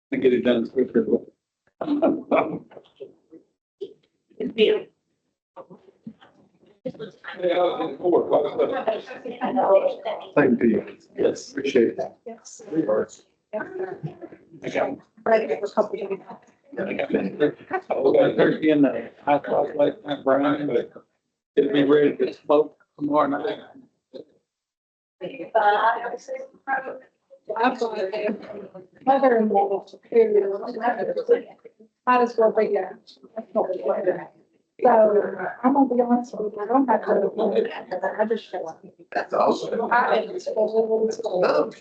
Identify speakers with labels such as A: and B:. A: and get it done quicker. Thank you. Yes. Appreciate that.
B: Yes.
A: I got,
B: Right, it was a couple of-
A: I got turkey in the hot sauce like that, Brian, but get me ready to smoke tomorrow night.
B: Absolutely. Mother-in-law, superior, might as well be there. So I'm gonna be honest with you, I don't have to. I just show up.
C: That's awesome.
B: I am full, full.